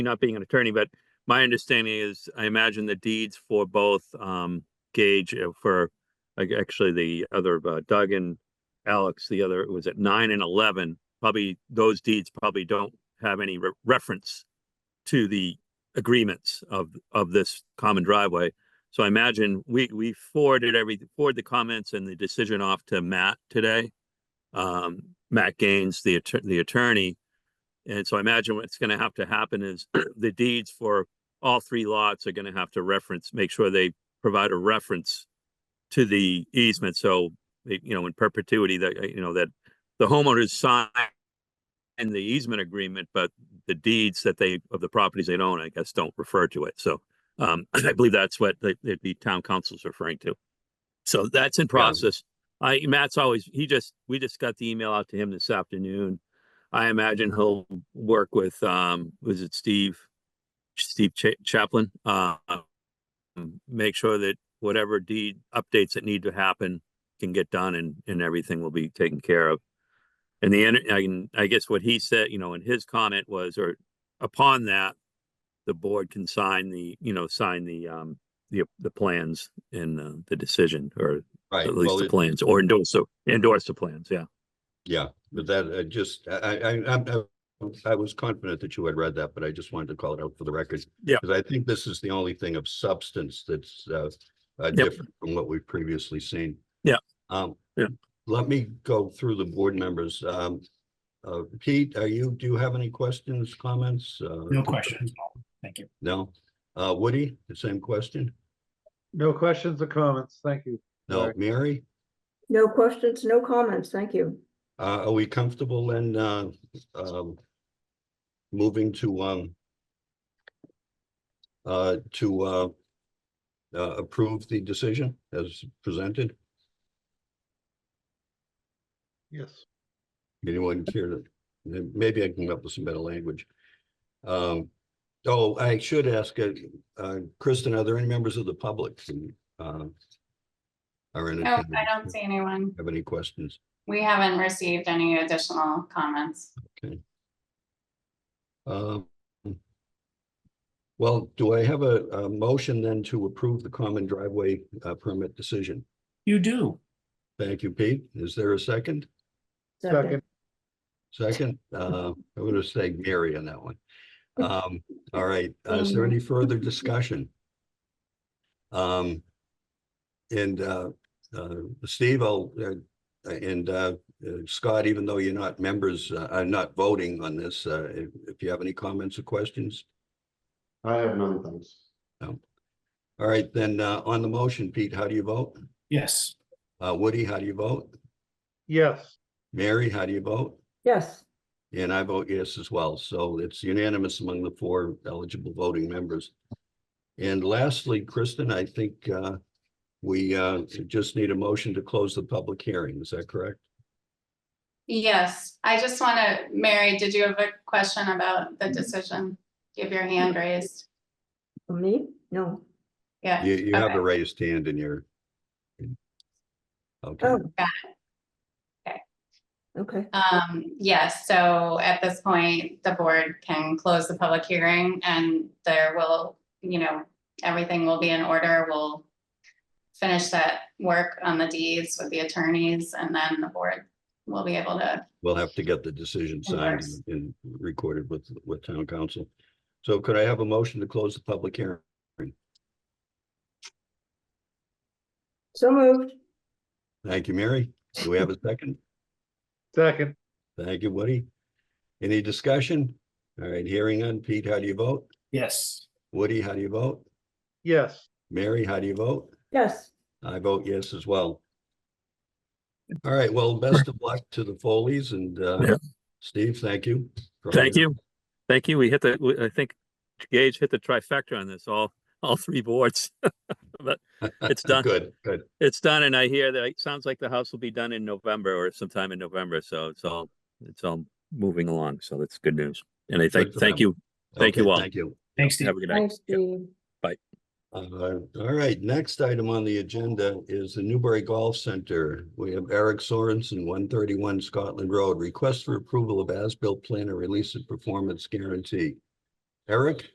not being an attorney, but my understanding is, I imagine the deeds for both, um, Gage, uh, for, like, actually the other, uh, Doug and Alex, the other, was it nine and eleven? Probably, those deeds probably don't have any re- reference to the agreements of, of this common driveway. So I imagine we, we forwarded every, forward the comments and the decision off to Matt today. Um, Matt Gaines, the attorney, the attorney. And so I imagine what's gonna have to happen is the deeds for all three lots are gonna have to reference, make sure they provide a reference to the easement, so, they- you know, in perpetuity, that, uh, you know, that the homeowners sign and the easement agreement, but the deeds that they, of the properties they own, I guess, don't refer to it, so um, I believe that's what the, the- the town council's referring to. So that's in process. I, Matt's always, he just, we just got the email out to him this afternoon. I imagine he'll work with, um, was it Steve? Steve Cha- Chaplin, uh, um, make sure that whatever deed updates that need to happen can get done and, and everything will be taken care of. And the, en- I can, I guess what he said, you know, in his comment was, or upon that, the board can sign the, you know, sign the, um, the, the plans and uh, the decision or Right, at well, least the it- plans or endorse, the endorse the plans, yeah. yeah, but that, I just, I, I, I, I'm- I, I was confident that you had read that, but I just wanted to call it out for the record. Yeah. Because I think this is the only thing of substance that's, uh, uh, Yep. different from what we've previously seen. Yeah. Um, Yeah. let me go through the board members. Um, uh, Pete, are you, do you have any questions, comments? Uh, No questions, Paul. Thank you. No? Uh, Woody, the same question? No questions or comments, thank you. No, Sorry. Mary? No questions, no comments. Thank you. Uh, are we comfortable in, uh, um, moving to, um, uh, to, uh, uh, approve the decision as presented? Yes. Anyone care to, maybe I can come up with some better language. Um, oh, I should ask, uh, uh, Kristen, are there any members of the public who, uh, are in? No, Oh, I attendance? don't see anyone. Have any questions? We haven't received any additional comments. Um, Well, do I have a, a motion then to approve the common driveway uh, permit decision? You do. Thank you, Pete. Is there a second? Second, Second, uh, I'm gonna say Mary on that one. Um, all right, uh, is there any further discussion? Um, and, uh, uh, Steve, I'll, uh, and, uh, uh, Scott, even though you're not members, uh, are not voting on this, uh, if, if you have any comments or questions? I have none, thanks. All right, then, uh, on the motion, Pete, how do you vote? Yes. Uh, Woody, how do you vote? yes, Mary, how do you vote? Yes, And I vote yes as well, so it's unanimous among the four eligible voting members. And lastly, Kristen, I think uh, we uh, just need a motion to close the public hearing, is that correct? Yes, I just want to, Mary, did you have a question about the decision? Do you have your hand raised? for me? No. Yeah, You, you have Okay. a raised hand in your. Okay, Oh. Got Okay. Okay. Okay, um, yes, so at this point, the board can close the public hearing and there will, you know, everything will be in order. We'll finish that work on the deeds with the attorneys and then the board will be able to we'll have to get the decision signed course. and recorded with, with town council. So could I have a motion to close the public hearing? so moved. Thank you, Mary. Do we have a second? second, Thank you, Woody. Any discussion? All right, hearing on Pete, how do you vote? Yes. Woody, how do you vote? yes, Mary, how do you vote? Yes, I vote yes as well. All right, well, best of luck to the Foley's and Yeah. uh, Steve, thank you. for all Thank your- you. Thank you. We hit the, we- I think Gage hit the trifecta on this, all, all three boards. It's done. Good, good. It's done and I hear that it sounds like the house will be done in November or sometime in November, so it's all, it's all moving along, so that's good news. And I thank, for thank them. you. Thank you Okay, all. Thank you. Thanks, Steve. Have a good night. thanks, Yep. Steve. Uh, All right, next item on the agenda is the Newbury Golf Center. We have Eric Sorensen, one thirty-one Scotland Road, request for approval of as-built plan and release of performance guarantee. Eric?